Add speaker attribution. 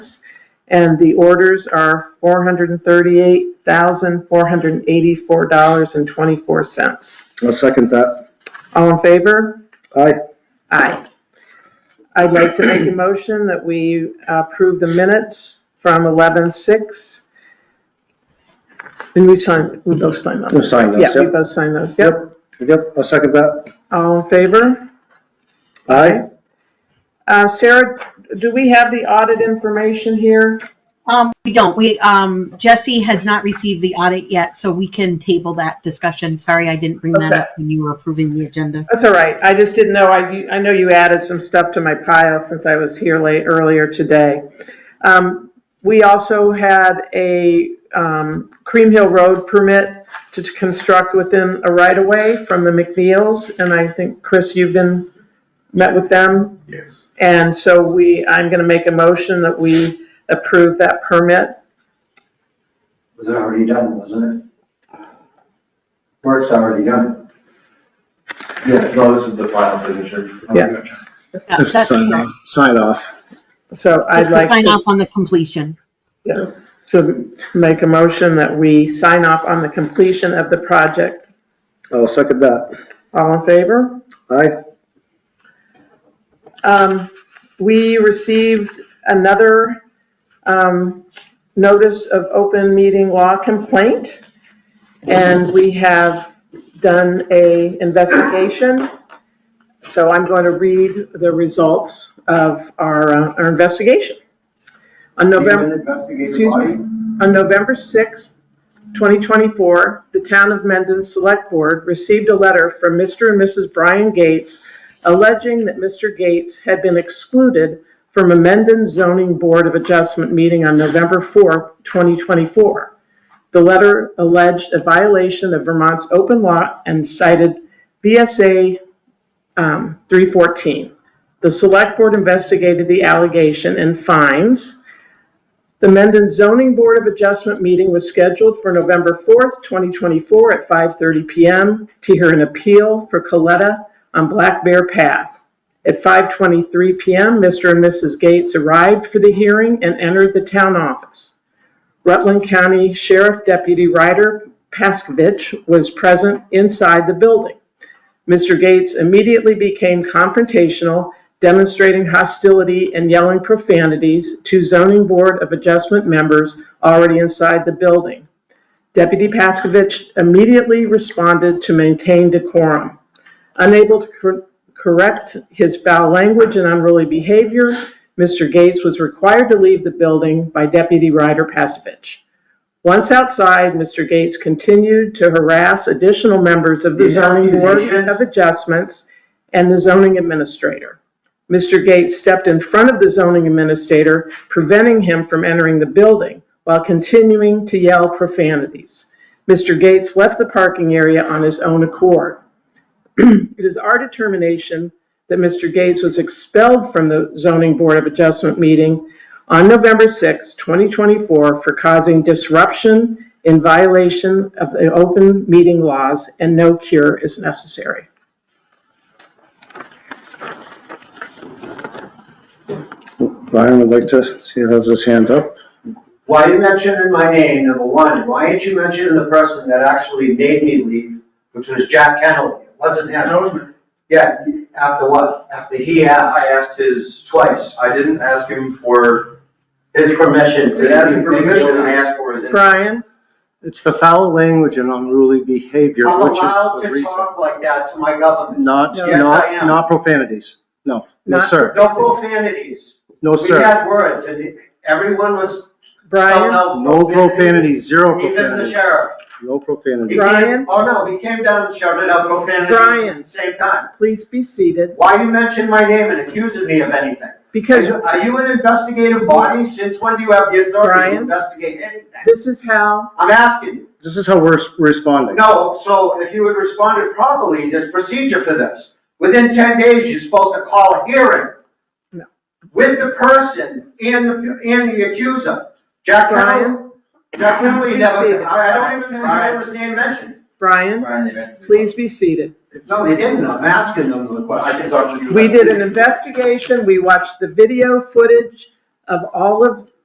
Speaker 1: and the orders are $438,484.24.
Speaker 2: I'll second that.
Speaker 1: All in favor?
Speaker 2: Aye.
Speaker 1: Aye. I'd like to make a motion that we approve the minutes from 11:06. And we sign, we both sign
Speaker 2: We'll
Speaker 1: those.
Speaker 2: sign
Speaker 1: Yeah,
Speaker 2: those,
Speaker 1: we
Speaker 2: yep.
Speaker 1: both sign those, yep.
Speaker 2: Yep, I'll second that.
Speaker 1: All in favor?
Speaker 2: Aye.
Speaker 1: Uh, Sarah, do we have the audit information here?
Speaker 3: Um, we don't, we, um, Jesse has not received the audit yet, so we can table that discussion. Sorry, I didn't bring that
Speaker 1: Okay.
Speaker 3: up when you were approving the agenda.
Speaker 1: That's all right, I just didn't know, I, I know you added some stuff to my pile since I was here late, earlier today. Um, we also had a, um, Cream Hill Road permit to construct within a right-of-way from the McNeils, and I think, Chris, you've been, met with them?
Speaker 4: Yes.
Speaker 1: And so we, I'm gonna make a motion that we approve that permit.
Speaker 4: Was it already done, wasn't it? Work's already done. Yeah, no, this is the final signature.
Speaker 1: Yeah.
Speaker 3: That- That's
Speaker 2: Just sign
Speaker 3: correct.
Speaker 2: off. Sign off.
Speaker 1: So I'd
Speaker 3: Just to
Speaker 1: like
Speaker 3: sign
Speaker 1: to,
Speaker 3: off on the completion.
Speaker 1: to make a motion that we sign off on the completion of the project.
Speaker 2: I'll second that.
Speaker 1: All in favor?
Speaker 2: Aye.
Speaker 1: Um, we received another, um, notice of open meeting law complaint. And we have done a investigation. So I'm going to read the results of our, uh, our investigation. On November.
Speaker 4: Investigative
Speaker 1: Excuse
Speaker 4: body,
Speaker 1: me. On November 6, 2024, the Town of Mendon Select Board received a letter from Mr. and Mrs. Brian Gates alleging that Mr. Gates had been excluded from a Mendon Zoning Board of Adjustment meeting on November 4, 2024. The letter alleged a violation of Vermont's open law and cited BSA um, 314. The Select Board investigated the allegation and finds the Mendon Zoning Board of Adjustment meeting was scheduled for November 4th, 2024 at 5:30 PM to hear an appeal for Coletta on Black Bear Path. At 5:23 PM, Mr. and Mrs. Gates arrived for the hearing and entered the town office. Rutland County Sheriff Deputy Ryder Paskovich was present inside the building. Mr. Gates immediately became confrontational, demonstrating hostility and yelling profanities to zoning board of adjustment members already inside the building. Deputy Paskovich immediately responded to maintain decorum. Unable to cor- correct his foul language and unruly behavior, Mr. Gates was required to leave the building by Deputy Ryder Paskovich. Once outside, Mr. Gates continued to harass additional members of the
Speaker 4: These
Speaker 1: zoning board
Speaker 4: accusations-
Speaker 1: of adjustments and the zoning administrator. Mr. Gates stepped in front of the zoning administrator, preventing him from entering the building while continuing to yell profanities. Mr. Gates left the parking area on his own accord. It is our determination that Mr. Gates was expelled from the zoning board of adjustment meeting on November 6, 2024 for causing disruption in violation of the open meeting laws and no cure is necessary.
Speaker 2: Brian would like to, see, has his hand up.
Speaker 4: Why are you mentioning my name, number one? Why ain't you mentioning the person that actually made me leave, which was Jack Kennelly? It wasn't him. Yeah, after what? After he
Speaker 5: I
Speaker 4: asked
Speaker 5: asked his,
Speaker 4: twice,
Speaker 5: I didn't ask him for,
Speaker 4: his permission.
Speaker 5: I didn't ask him for permission, I asked for his.
Speaker 1: Brian,
Speaker 6: It's the foul language and unruly behavior,
Speaker 4: I'm
Speaker 6: which is
Speaker 4: allowed
Speaker 6: the
Speaker 4: to
Speaker 6: reason.
Speaker 4: talk like that to my government.
Speaker 6: Not,
Speaker 1: Yes,
Speaker 4: I
Speaker 6: not,
Speaker 4: am.
Speaker 6: not profanities. No, no,
Speaker 1: Not-
Speaker 6: sir.
Speaker 4: No profanities.
Speaker 6: No,
Speaker 4: We
Speaker 6: sir.
Speaker 4: had words and everyone was spelling
Speaker 1: Brian,
Speaker 4: out.
Speaker 6: No profanities, zero
Speaker 4: Even the
Speaker 6: profanities.
Speaker 4: sheriff.
Speaker 6: No
Speaker 4: He
Speaker 6: profanity.
Speaker 4: came-
Speaker 1: Brian?
Speaker 4: Oh, no, he came down and shouted out profanities at
Speaker 1: Brian.
Speaker 4: the same time.
Speaker 1: please be seated
Speaker 4: Why you mention my name and accusing me of anything? Are
Speaker 1: because
Speaker 4: you- are you an investigative body? Since when do you have the authority
Speaker 1: Brian?
Speaker 4: to investigate anything?
Speaker 1: this is how,
Speaker 4: I'm asking you.
Speaker 6: This is how we're s- responding.
Speaker 4: No, so if you had responded properly, there's procedure for this. Within ten days, you're supposed to call a hearing.
Speaker 1: No.
Speaker 4: With the person and the, and the accuser. Jack Ryan,
Speaker 1: Brian?
Speaker 4: Jack Riley
Speaker 1: Please
Speaker 4: never,
Speaker 1: proceed.
Speaker 4: I I don't even know how his name mentioned.
Speaker 1: Brian, please be seated.
Speaker 4: No, they didn't, I'm asking them the
Speaker 5: I can
Speaker 4: question.
Speaker 5: talk to you.
Speaker 1: We
Speaker 5: after.
Speaker 1: did an investigation, we watched the video footage of all of